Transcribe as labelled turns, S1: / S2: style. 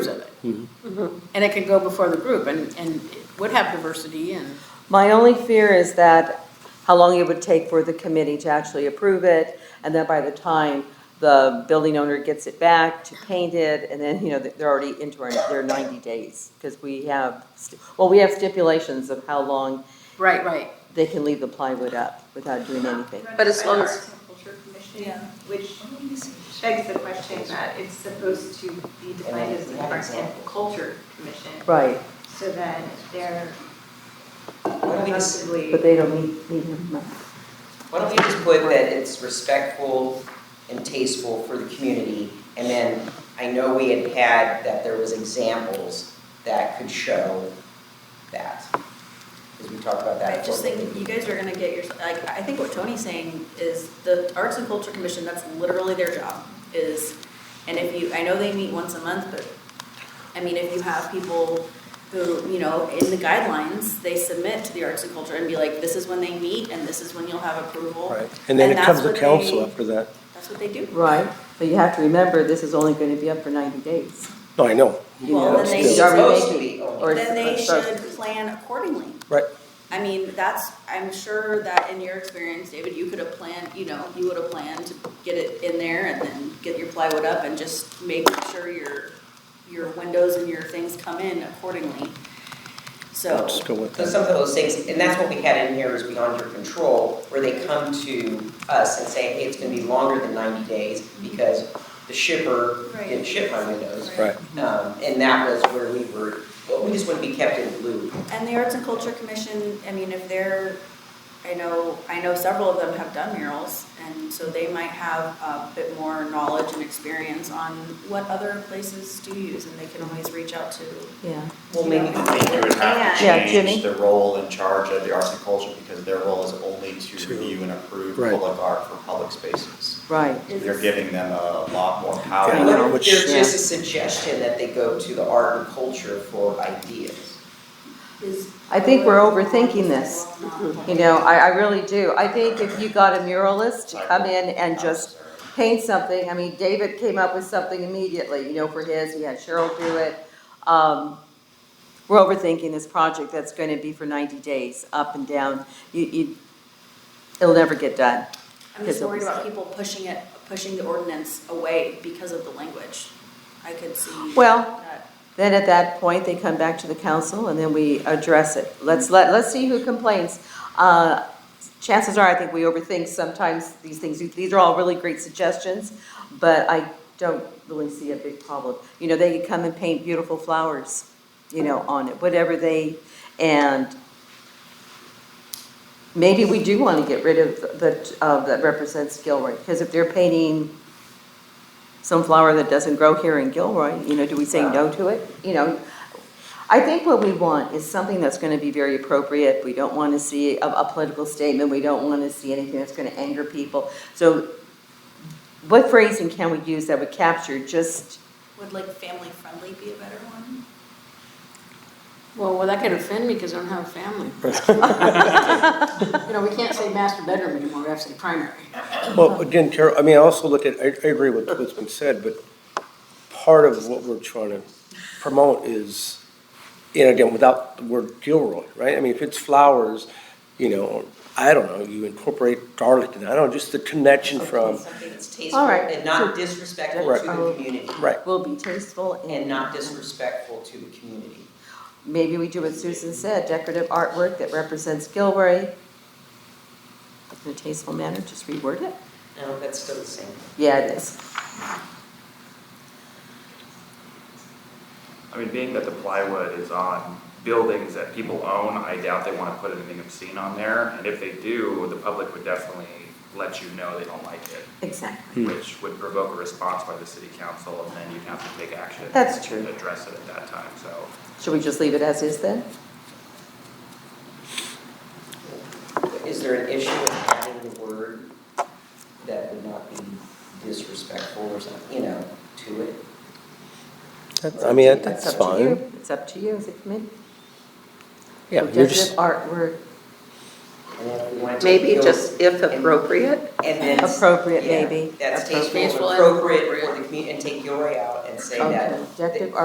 S1: And it could go before the group and, and it would have diversity and,
S2: My only fear is that how long it would take for the committee to actually approve it, and then by the time the building owner gets it back to paint it, and then, you know, they're already into our, their ninety days, because we have, st- well, we have stipulations of how long
S1: right, right.
S2: they can leave the plywood up without doing anything.
S3: Run
S4: But
S3: it
S4: as
S3: by
S4: long
S3: the
S4: as-
S3: Arts and Culture Commission, which begs the question that it's supposed to be defined as the Arts and Culture Commission,
S2: Right,
S3: so that they're
S5: Why don't we just,
S3: possibly.
S2: but they don't meet, meet in month.
S5: why don't we just put that it's respectful and tasteful for the community? And then I know we had had that there was examples that could show that. Because we talked about that.
S6: I just think you guys are gonna get your, like, I think what Tony's saying is the Arts and Culture Commission, that's literally their job, is, and if you, I know they meet once a month, but, I mean, if you have people who, you know, in the guidelines, they submit to the Arts and Culture and be like, this is when they meet and this is when you'll have approval.
S7: Right, and then it
S6: that's
S7: comes to
S6: what
S7: council
S6: they-
S7: after that.
S6: That's what they do.
S2: Right, but you have to remember, this is only gonna be up for ninety days.
S7: No, I know.
S2: You
S6: Well,
S2: know,
S6: then they
S2: it's
S6: should-
S2: already
S5: Supposed to
S2: making-
S5: be only-
S2: or it's-
S6: Then they
S2: or-
S6: should plan accordingly.
S7: Right.
S6: I mean, that's, I'm sure that in your experience, David, you could have planned, you know, you would have planned to get it in there and then get your plywood up and just make sure your, your windows and your things come in accordingly. So,
S7: Let's go with
S5: So
S7: that.
S5: some of those things, and that's what we had in here is beyond your control, where they come to us and say, hey, it's gonna be longer than ninety days because the shipper didn't
S6: Right.
S5: ship my windows.
S7: Right.
S5: Um, and that was where we were, well, we just wouldn't be kept in the loop.
S6: and the Arts and Culture Commission, I mean, if they're, I know, I know several of them have done murals, and so they might have a bit more knowledge and experience on what other places do use, and they can always reach out to
S2: Yeah,
S5: Well, maybe
S6: Yeah.
S5: we
S8: I think you would have to
S2: Yeah, Jimmy.
S8: change the role and charge of the arts and culture, because their role is only to
S7: To-
S8: review and approve
S7: Right.
S8: public art for public spaces.
S2: right.
S8: You're giving them a lot more
S7: Yeah,
S8: power.
S2: know,
S5: There's
S7: which-
S5: just a suggestion that they go to the art and culture for ideas.
S2: I think we're overthinking this.
S6: Mm-hmm.
S2: You know, I, I really do. I think if you got a muralist to come in and just paint something, I mean, David came up with something immediately, you know, for his, we had Cheryl do it. Um, we're overthinking this project that's gonna be for ninety days, up and down. You, you, it'll never get done.
S6: I'm just
S2: Because
S6: worried
S2: it was-
S6: about people pushing it, pushing the ordinance away because of the language. I could see.
S2: Well-
S6: that.
S2: Then at that point, they come back to the council and then we address it. Let's let, let's see who complains. Uh, Chances are, I think we overthink sometimes these things. These are all really great suggestions, but I don't really see a big problem. You know, they could come and paint beautiful flowers, you know, on it, whatever they, and maybe we do want to get rid of the, of that represents Gilroy, because if they're painting some flower that doesn't grow here in Gilroy, you know, do we say no to it? You know, I think what we want is something that's gonna be very appropriate. We don't wanna see a, a political statement, we don't wanna see anything that's gonna anger people. So what phrasing can we use that would capture just,
S6: Would like family friendly be a better one?
S1: Well, well, that could offend me because I don't have a family. You know, we can't say master bedroom anymore, we have to say primary.
S7: Well, again, Carol, I mean, I also look at, I, I agree with what's been said, but part of what we're trying to promote is, you know, again, without the word Gilroy, right? I mean, if it's flowers, you know, I don't know, you incorporate garlic, and I don't know, just the connection from,
S5: Something that's
S2: All
S5: tasteful
S2: right.
S5: and not disrespectful to
S7: Right.
S5: the community.
S7: right,
S2: will be tasteful and.
S5: And not disrespectful to the community.
S2: Maybe we do what Susan said, decorative artwork that represents Gilroy in a tasteful manner, just reword it.
S5: No, that's still the same.
S2: Yeah, it is.
S9: I mean, being that the plywood is on buildings that people own, I doubt they wanna put anything obscene on there, and if they do, the public would definitely let you know they don't like it,
S2: Exactly.
S9: which would provoke a response by the city council, and then you'd have to take action.
S2: That's true.
S9: and Address it at that time, so.
S2: Should we just leave it as is then?
S5: Is there an issue with adding the word that would not be disrespectful or something, you know, to it?
S7: That's- I mean,
S2: It's
S7: that's
S2: up to
S7: fine.
S2: you. It's up to you as a committee.
S7: Yeah, you're
S2: Decorative
S7: just,
S2: artwork
S5: And then if we wanted to
S4: Maybe
S5: go-
S4: just if
S5: and-
S4: appropriate,
S5: And then.
S2: appropriate
S5: Yeah,
S2: maybe.
S5: That's tasteful,
S4: Tasteful
S5: and
S4: and
S5: appropriate for the community, and take Gilroy out and say that
S2: Okay, decorative